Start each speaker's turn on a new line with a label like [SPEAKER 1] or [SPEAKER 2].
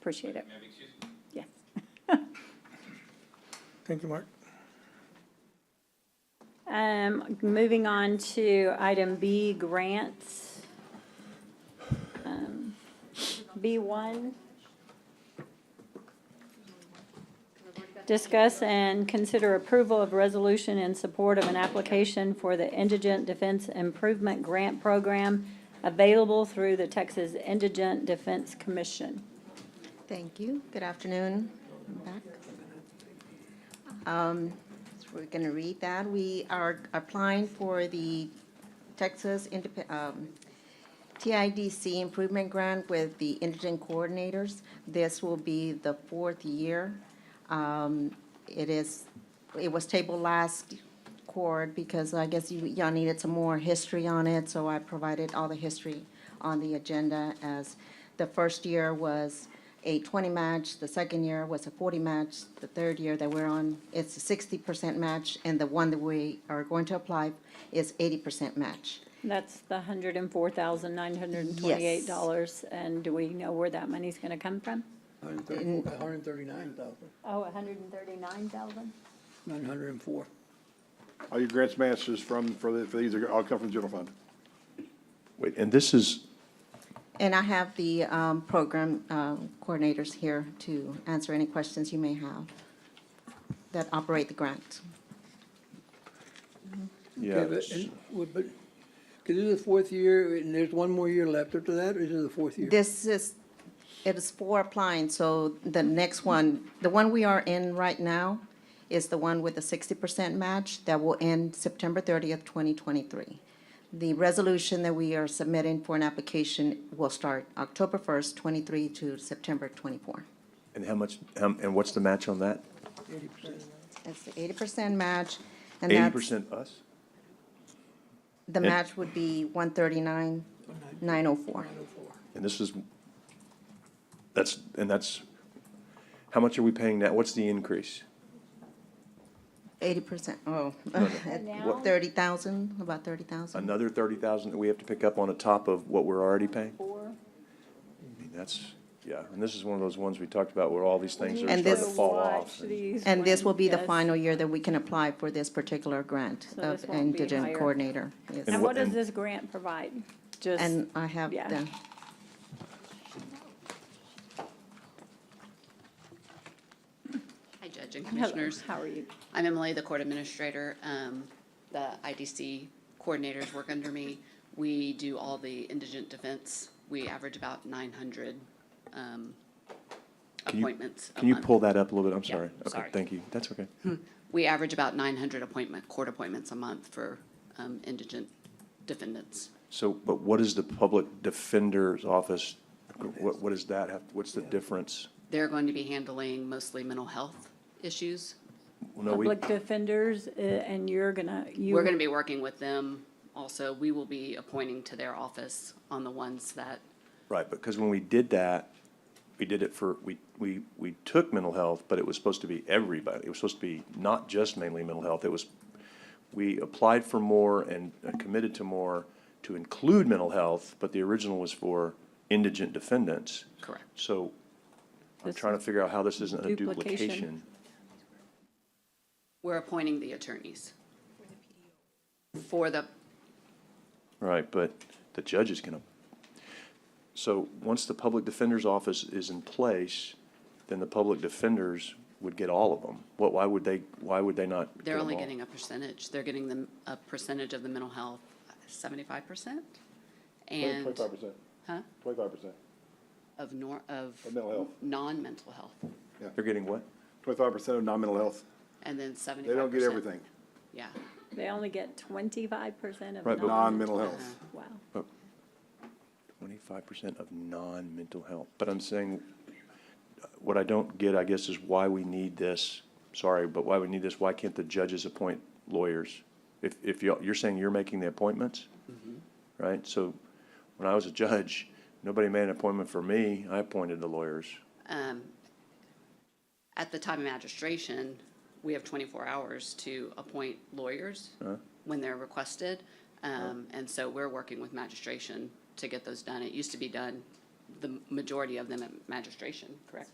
[SPEAKER 1] Appreciate it.
[SPEAKER 2] Maybe, excuse me.
[SPEAKER 1] Yes.
[SPEAKER 3] Thank you, Mark.
[SPEAKER 1] Um, moving on to item B, grants. Um, B one. Discuss and consider approval of resolution in support of an application for the Indigent Defense Improvement Grant Program available through the Texas Indigent Defense Commission.
[SPEAKER 4] Thank you. Good afternoon. I'm back. Um, so We're going to read that. We are applying for the Texas Indep- um, TIDC Improvement Grant with the Indigent Coordinators. This will be the fourth year. Um, It is, it was tabled last court because I guess you- y'all needed some more history on it, so I provided all the history on the agenda as the first year was a 20 match, the second year was a 40 match, the third year that we're on, it's a 60% match, and the one that we are going to apply is 80% match.
[SPEAKER 1] That's the hundred and four thousand nine hundred and twenty-eight dollars, and do we know where that money's gonna come from?
[SPEAKER 4] And-
[SPEAKER 3] Hundred and thirty-nine thousand,
[SPEAKER 1] Oh, a hundred and thirty-nine thousand?
[SPEAKER 3] nine hundred and four.
[SPEAKER 5] All your grants matches from, for the, for these, are all come from the general fund.
[SPEAKER 6] Wait, and this is,
[SPEAKER 4] And I have the um, program um, coordinators here to answer any questions you may have that operate the grant.
[SPEAKER 6] yeah,
[SPEAKER 3] But, could this is the fourth year, and there's one more year left after that, or is it the fourth year?
[SPEAKER 4] This is, it is for applying, so the next one, the one we are in right now is the one with the sixty percent match that will end September thirtieth, twenty twenty-three. The resolution that we are submitting for an application will start October first, twenty-three to September twenty-four.
[SPEAKER 6] and how much, um, and what's the match on that?
[SPEAKER 3] Eighty percent.
[SPEAKER 4] That's the eighty percent match, and
[SPEAKER 6] Eighty
[SPEAKER 4] that's,
[SPEAKER 6] percent us?
[SPEAKER 4] the match would be one thirty-nine, nine oh four.
[SPEAKER 6] And this is, that's, and that's, how much are we paying now? What's the increase?
[SPEAKER 4] Eighty percent, oh,
[SPEAKER 1] Now?
[SPEAKER 4] thirty thousand, about thirty thousand.
[SPEAKER 6] Another thirty thousand that we have to pick up on the top of what we're already paying?
[SPEAKER 1] Four.
[SPEAKER 6] I mean, that's, yeah, and this is one of those ones we talked about where all these things are
[SPEAKER 4] And
[SPEAKER 6] starting to
[SPEAKER 4] this-
[SPEAKER 6] fall off. and-
[SPEAKER 4] And this will be the final year that we can apply for this particular grant
[SPEAKER 1] So
[SPEAKER 4] of
[SPEAKER 1] this won't be
[SPEAKER 4] indigent
[SPEAKER 1] higher.
[SPEAKER 4] coordinator. yes.
[SPEAKER 1] And
[SPEAKER 6] And
[SPEAKER 1] what
[SPEAKER 6] what-
[SPEAKER 1] does
[SPEAKER 6] and-
[SPEAKER 1] this grant provide? Just,
[SPEAKER 4] And I have
[SPEAKER 1] Yeah.
[SPEAKER 4] the,
[SPEAKER 7] Hi, Judge and
[SPEAKER 1] hello,
[SPEAKER 7] Commissioners.
[SPEAKER 1] how are you?
[SPEAKER 7] I'm Emily, the Court Administrator. Um, The IDC coordinators work under me. We do all the indigent defense. We average about 900 um,
[SPEAKER 6] you-
[SPEAKER 7] appointments a
[SPEAKER 6] Can you
[SPEAKER 7] month.
[SPEAKER 6] pull that up a little bit? I'm
[SPEAKER 7] Yeah,
[SPEAKER 6] sorry. Okay,
[SPEAKER 7] sorry.
[SPEAKER 6] thank you. That's okay.
[SPEAKER 7] We average about 900 appointment, court appointments a month for um, indigent defendants.
[SPEAKER 6] So, but what is the public defender's office, what, what does that have, what's the difference?
[SPEAKER 7] They're going to be handling mostly mental health issues.
[SPEAKER 6] Well, no, we-
[SPEAKER 1] Public defenders, uh, and you're gonna, you.
[SPEAKER 7] We're going to be working with them also. We will be appointing to their office on the ones that
[SPEAKER 6] Right, because when we did that, we did it for, we, we, we took mental health, but it was supposed to be everybody. It was supposed to be not just mainly mental health. It was, we applied for more and uh, committed to more to include mental health, but the original was for indigent defendants.
[SPEAKER 7] Correct.
[SPEAKER 6] So I'm
[SPEAKER 1] This
[SPEAKER 6] trying to figure out how this isn't a
[SPEAKER 1] Duplication.
[SPEAKER 6] duplication.
[SPEAKER 7] We're appointing the attorneys. For the,
[SPEAKER 6] Right, but the judge is gonna, so once the public defender's office is in place, then the public defenders would get all of them. What, why would they, why would they not? get
[SPEAKER 7] they're
[SPEAKER 6] 'em
[SPEAKER 7] only
[SPEAKER 6] all?
[SPEAKER 7] getting a percentage. They're getting the, a percentage of the mental health, seventy-five percent? And
[SPEAKER 5] Twenty-five percent,
[SPEAKER 7] Huh?
[SPEAKER 5] twenty-five percent,
[SPEAKER 7] of nor, of
[SPEAKER 5] Of mental health.
[SPEAKER 7] non-mental health,
[SPEAKER 6] They're getting what?
[SPEAKER 5] twenty-five percent of non-mental health.
[SPEAKER 7] and then seventy-five
[SPEAKER 5] They
[SPEAKER 7] percent.
[SPEAKER 5] don't get everything,
[SPEAKER 7] Yeah,
[SPEAKER 1] They only get twenty-five percent of.
[SPEAKER 6] Right, but-
[SPEAKER 5] non-mental health.
[SPEAKER 7] Uh-huh.
[SPEAKER 1] Wow.
[SPEAKER 6] Twenty-five percent of non-mental health. But I'm saying, uh, what I don't get, I guess, is why we need this. Sorry, but why we need this? Why can't the judges appoint lawyers? If, if you're, you're saying you're making the appointments? Right? So when I was a judge, nobody made an appointment for me. I appointed the lawyers.
[SPEAKER 7] um, at the time of magistration, we have twenty-four hours to appoint lawyers
[SPEAKER 5] Uh-huh.
[SPEAKER 7] when they're requested. Um, and so we're working with magistration to get those done. It used to be done the majority of them at magistration, correct?